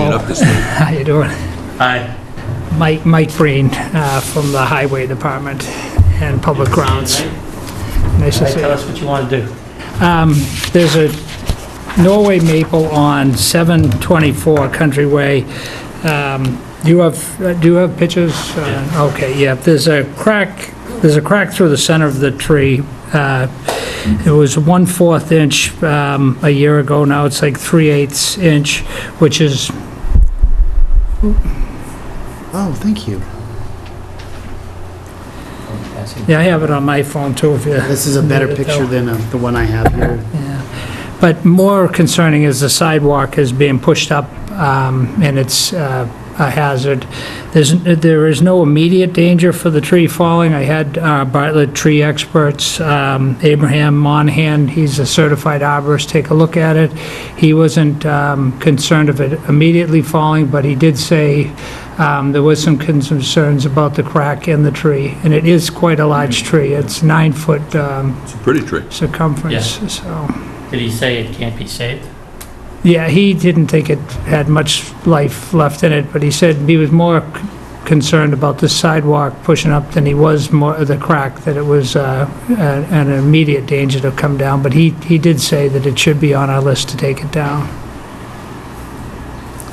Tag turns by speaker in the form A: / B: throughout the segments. A: this week.
B: How you doing?
A: Hi.
B: Mike, Mike Breen, uh, from the Highway Department and Public Grounds. Nice to see you.
A: Tell us what you want to do.
B: Um, There's a Norway maple on 724 Country Way. Um, Do you have, uh, do you have pictures? Uh, Okay, yeah, there's a crack, there's a crack through the center of the tree. Uh, It was 1/4 inch um, a year ago, now it's like 3/8 inch, which is
C: Oh, thank you.
B: Yeah, I have it on my phone too, if you...
C: This is a better
B: Yeah,
C: picture than uh, the one I have here.
B: yeah. But more concerning is the sidewalk is being pushed up, um, and it's uh, a hazard. There's, there is no immediate danger for the tree falling. I had uh, Bartlett tree experts, um, Abraham Monahan, he's a certified arborist, take a look at it. He wasn't um, concerned of it immediately falling, but he did say um, there was some concerns about the crack in the tree, and it is quite a large tree. It's nine-foot um,
D: It's a pretty tree.
B: circumference, so.
A: Did he say it can't be saved?
B: Yeah, he didn't think it had much life left in it, but he said he was more c- concerned about the sidewalk pushing up than he was more, the crack, that it was uh, a- an immediate danger to come down, but he, he did say that it should be on our list to take it down.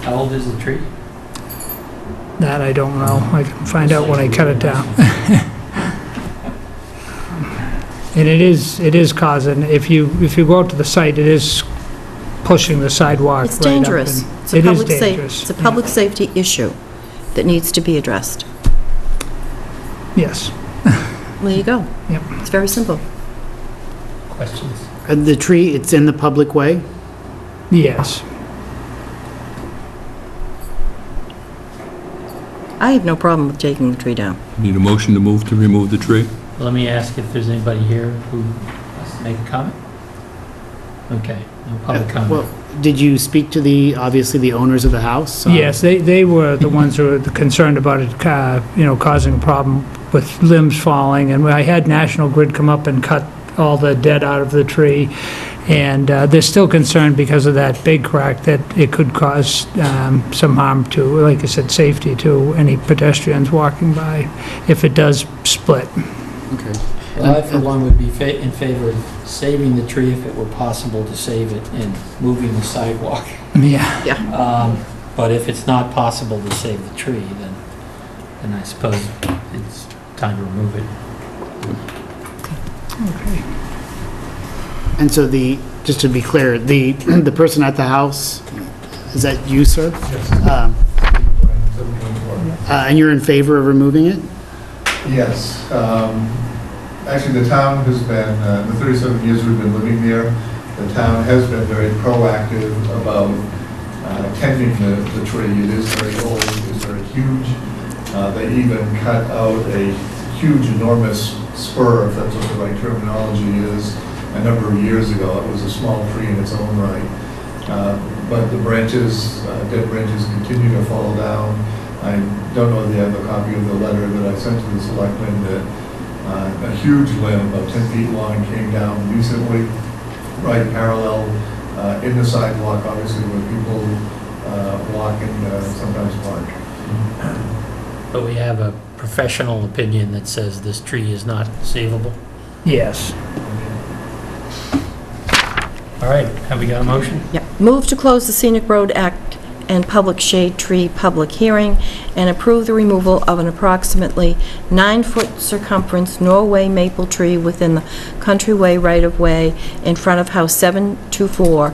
A: How old is the tree?
B: That I don't know, I can find out when I cut it down. And it is, it is causing, if you, if you go out to the site, it is pushing the sidewalk
E: It's
B: right up
E: dangerous.
B: and-
E: It's a
B: It is
E: public sa-
B: dangerous,
E: It's a
B: yeah.
E: public safety issue that needs to be addressed.
B: Yes.
E: There you go.
B: Yep.
E: It's very simple.
A: Questions?
C: Uh, The tree, it's in the public way?
B: Yes.
E: I have no problem with taking the tree down.
D: Need a motion to move to remove the tree?
A: Let me ask if there's anybody here who wants to make a comment? Okay, no public comment.
C: Uh, Well, did you speak to the, obviously, the owners of the house? Uh, So-
B: Yes, they, they were the ones who were concerned about it, uh, you know, causing a problem with limbs falling, and I had National Grid come up and cut all the dead out of the tree, and uh, they're still concerned because of that big crack that it could cause um, some harm to, like I said, safety to any pedestrians walking by if it does split.
C: Okay.
F: Well, I, for one, would be fa- in favor of saving the tree if it were possible to save it and moving the sidewalk.
B: Yeah,
F: Um, But if it's not possible to save the tree, then,
A: And I suppose it's time to remove it.
B: okay.
C: And so the, just to be clear, the, the person at the house, is that you, sir? Um, uh, And you're in favor of removing it?
G: Yes. um, Actually, the town has been, uh, the 37 years we've been living there, the town has been very proactive about uh, tending the the tree. It is very old, it is very huge. Uh, They even cut out a huge enormous spur, if that's what the right terminology is, a number of years ago. It was a small tree in its own right. Uh, But the branches, uh, dead branches continue to fall down. I don't know if they have a copy of the letter that I sent to the selectmen that uh, a huge limb, about 10 feet long, came down recently, right parallel uh, in the sidewalk, obviously where people uh, walk and uh, sometimes park.
A: But we have a professional opinion that says this tree is not savable.
B: Yes.
A: All right, have we got a motion?
E: Yeah. Move to close the Scenic Road Act and Public Shade Tree public hearing and approve the removal of an approximately nine-foot circumference Norway maple tree within the countryway right-of-way in front of House 724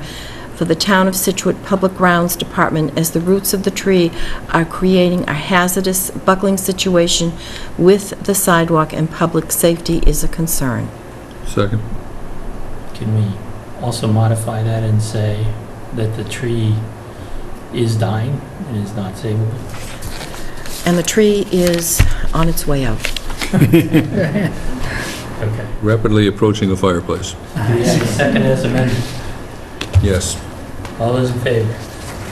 E: for the Town of Situate Public Grounds Department as the roots of the tree are creating a hazardous buckling situation with the sidewalk and public safety is a concern.
D: Second.
A: Can we also modify that and say that the tree is dying and is not savable?
E: And the tree is on its way out.
A: Okay.
D: Rapidly approaching a fireplace.
A: Do we have a second as amended?
D: Yes.
A: All those in favor?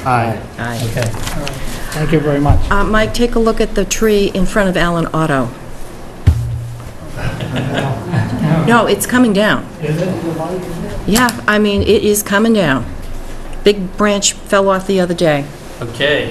C: Aye.
E: Aye.
A: Okay.
B: Thank you very much.
E: Uh, Mike, take a look at the tree in front of Allen Auto. No, it's coming down. Yeah, I mean, it is coming down. Big branch fell off the other day.
A: Okay.